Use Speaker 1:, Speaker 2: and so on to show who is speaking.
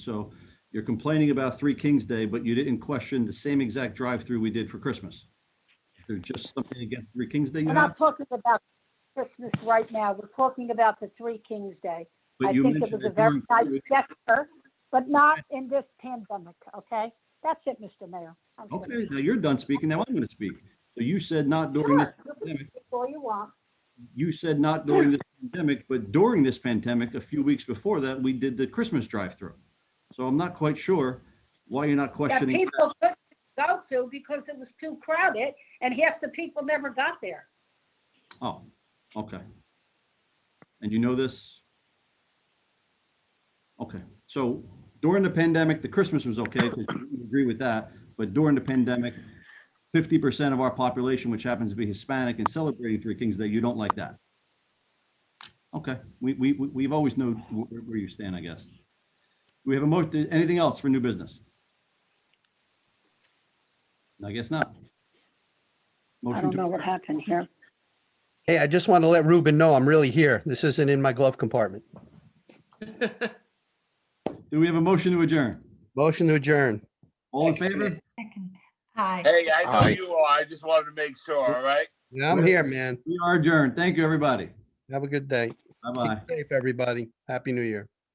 Speaker 1: So you're complaining about Three Kings Day, but you didn't question the same exact drive-through we did for Christmas. There's just something against Three Kings Day you
Speaker 2: We're
Speaker 1: have,
Speaker 2: not talking about Christmas right now. We're talking about the Three Kings Day.
Speaker 1: but
Speaker 2: I
Speaker 1: you
Speaker 2: think it
Speaker 1: mentioned
Speaker 2: was a
Speaker 1: it
Speaker 2: very
Speaker 1: during
Speaker 2: nice
Speaker 1: COVID.
Speaker 2: gesture, but not in this pandemic, okay? That's it, Mr. Mayor. I'm finished.
Speaker 1: Okay, now you're done speaking. Now I'm going to speak. So you said not during this
Speaker 2: Sure, you can
Speaker 1: pandemic.
Speaker 2: speak all you want.
Speaker 1: You said not during this pandemic, but during this pandemic, a few weeks before that, we did the Christmas drive-through. So I'm not quite sure why you're not
Speaker 2: That
Speaker 1: questioning.
Speaker 2: people couldn't go to because it was too crowded and half the people never got there.
Speaker 1: Oh, okay. And you know this? Okay, so during the pandemic, the Christmas was okay, because you agree with that, but during the pandemic, fifty percent of our population, which happens to be Hispanic and celebrating Three Kings Day, you don't like that? Okay, we, we, we- we've always known wh- where you stand, I guess. We have a motion, anything else for new business? I guess not.
Speaker 2: I
Speaker 1: Motion
Speaker 2: don't know
Speaker 1: to,
Speaker 2: what happened here.
Speaker 3: Hey, I just want to let Ruben know I'm really here. This isn't in my glove compartment.
Speaker 1: do we have a motion to adjourn?
Speaker 3: Motion to adjourn.
Speaker 1: All in favor?
Speaker 4: Second. Aye.
Speaker 5: Hey, I know
Speaker 6: Aye.
Speaker 5: you are. I just wanted to make sure, all right?
Speaker 3: Yeah, I'm here, man.
Speaker 1: We are adjourned. Thank you, everybody.
Speaker 3: Have a good day.
Speaker 1: Bye-bye.
Speaker 3: Keep safe, everybody. Happy New Year.